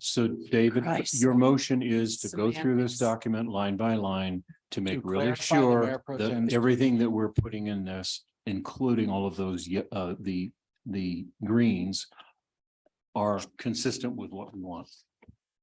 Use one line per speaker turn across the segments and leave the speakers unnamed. So David,
Christ.
your motion is to go through
Semantics.
this document line by line to make
To
really
clarify the
sure
Mayor Pro
that
Tem's-
everything that we're putting in this, including all of those, ye- uh, the, the greens are consistent with what we want.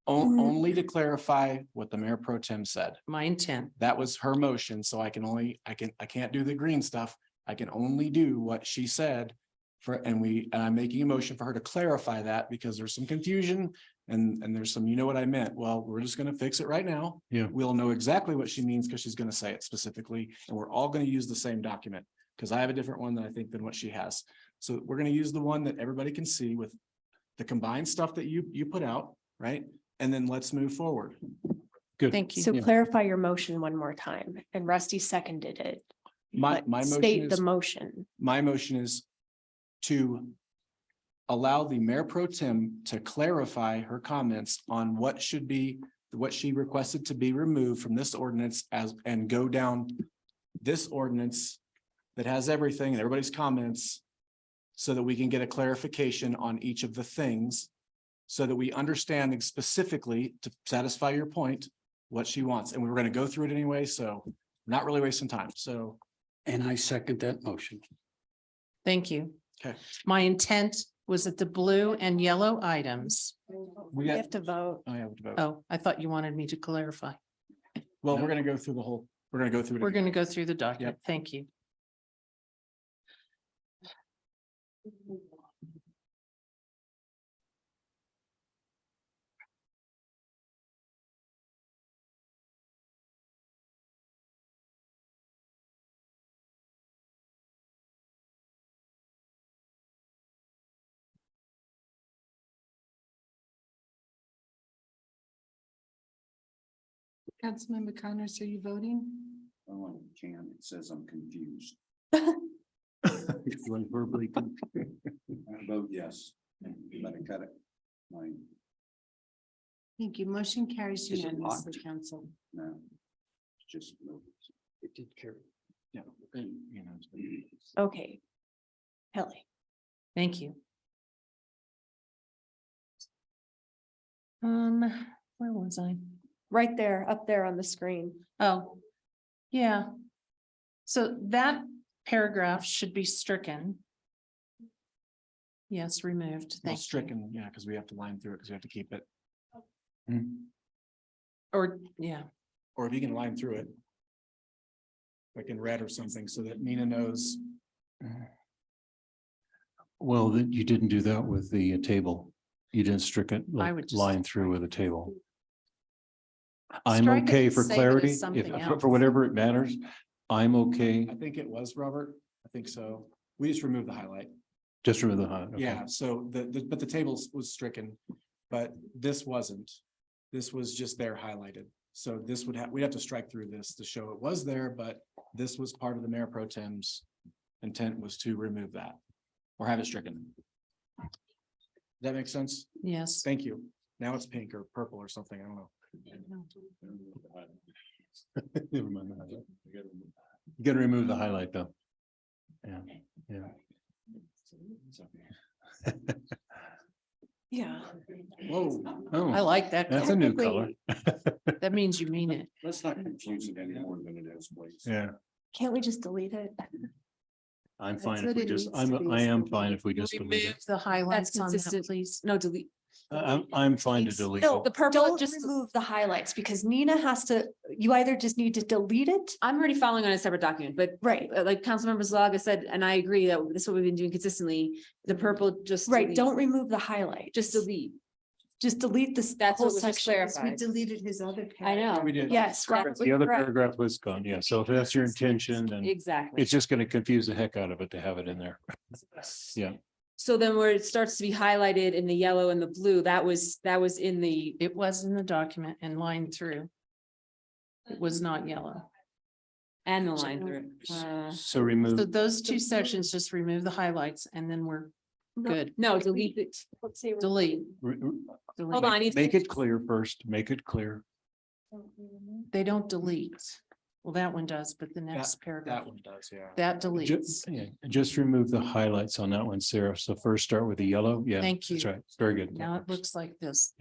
On- Only to clarify what the mayor pro tem said.
my intent.
That was her motion, so I can only, I can, I can't do the green stuff. I can only do what she said. For, and we, and I'm making a motion for her to clarify that because there's some confusion and, and there's some, you know what I meant? Well, we're just gonna fix it right now.
Yeah.
We'll know exactly what she means because she's gonna say it specifically, and we're all gonna use the same document. Because I have a different one that I think than what she has. So we're gonna use the one that everybody can see with the combined stuff that you, you put out, right? And then let's move forward.
Thank
So
you.
clarify your motion one more time and Rusty seconded it.
My,
but
my motion
State
is.
the motion.
my motion is to allow the mayor pro tem to clarify her comments on what should be, what she requested to be removed from this ordinance as, and go down this ordinance that has everything and everybody's comments so that we can get a clarification on each of the things so that we understand specifically to satisfy your point, what she wants. And we were going to go through it anyway, so not really wasting time. So
And I second that motion.
Thank you.
Okay.
My intent was that the blue and yellow items.
we
We
got,
have to vote.
I have to vote.
Oh, I thought you wanted me to clarify.
Well, we're gonna go through the whole, we're gonna go through. it
We're
again.
going to go through the document. Thank you.
Councilmember Connors, are you voting?
Oh, Jan, it says I'm confused. I vote yes, but I cut it. My,
Thank you. Motion carries
Is it
unanimously,
locked?
council.
no. it's Just. It did carry. Yeah. you know.
Okay. Kelly,
Thank you. Um, where was I?
right there, up there on the screen.
Oh, yeah. So that paragraph should be stricken. Yes, removed.
Well,
Thank you.
Stricken, yeah, because we have to line through it, because we have to keep it,
Or, yeah,
or if you can line through it. Like in red or something, so that Nina knows,
Well, that you didn't do that with the uh, table. You didn't strict it,
I
like,
would just-
line through with a table. I'm
Strike it
okay
and
for
save it as
clarity, if,
something
for-
else.
for whatever it matters, I'm okay,
I think it was Robert, I think so, we just removed the highlight,
just remember the. hi- okay.
yeah, so the, the, but the table was stricken. But this wasn't, this was just there highlighted, so this would have, we'd have to strike through this to show it was there, but this was part of the mayor pro tem's. Intent was to remove that, or have it stricken. Does That makes sense?
yes.
Thank you. Now it's pink or purple or something. I don't know.
Never mind the highlight. You gotta remove the highlight though. Yeah, yeah.
Yeah.
Whoa.
I
Oh,
like that.
that's a
color.
new color.
That means you mean it.
Let's not confuse it any more than it is, please.
Yeah,
Can't we just delete it?
I'm
That's
fine if
what
we
it
just,
needs to
I'm,
be,
I am
so
fine if we just delete
Remove
it.
the highlights on that,
consistent.
please.
No, delete.
I- I'm, I'm fine to delete
No, the
it.
purple,
Don't
just
remove-
remove the highlights because Nina has to, you either just need to delete it.
I'm already following on a separate document, but
Right,
uh, like Councilmember Zalaga said, and I agree that this is what we've been doing consistently, the purple just.
right.
delete.
Don't remove the highlight.
Just delete.
Just delete this.
That's
whole
what was just
section.
clarified. deleted his other. I
We
know.
did.
Yes. Robert was
The other
correct.
paragraph was gone, yeah, so if that's your intention, then
Exactly.
it's just gonna confuse the heck out of it to have it in there. Yeah.
So then where it starts to be highlighted in the yellow and the blue, that was, that was in the,
It was in the document and lined through. It was not yellow.
and the line through. Uh,
So remove.
So those two sections, just remove the highlights and then we're good.
No, delete it.
Let's say.
Delete.
re- re-
Hold on, I need to-
Make it clear first, make it clear.
They don't delete. Well, that one does, but the next
That
paragraph,
one does, yeah.
that
Ju-
deletes.
yeah, just remove the highlights on that one, Sarah. So first start with the yellow. Yeah.
Thank you.
That's right. Very good.
Now it looks like this.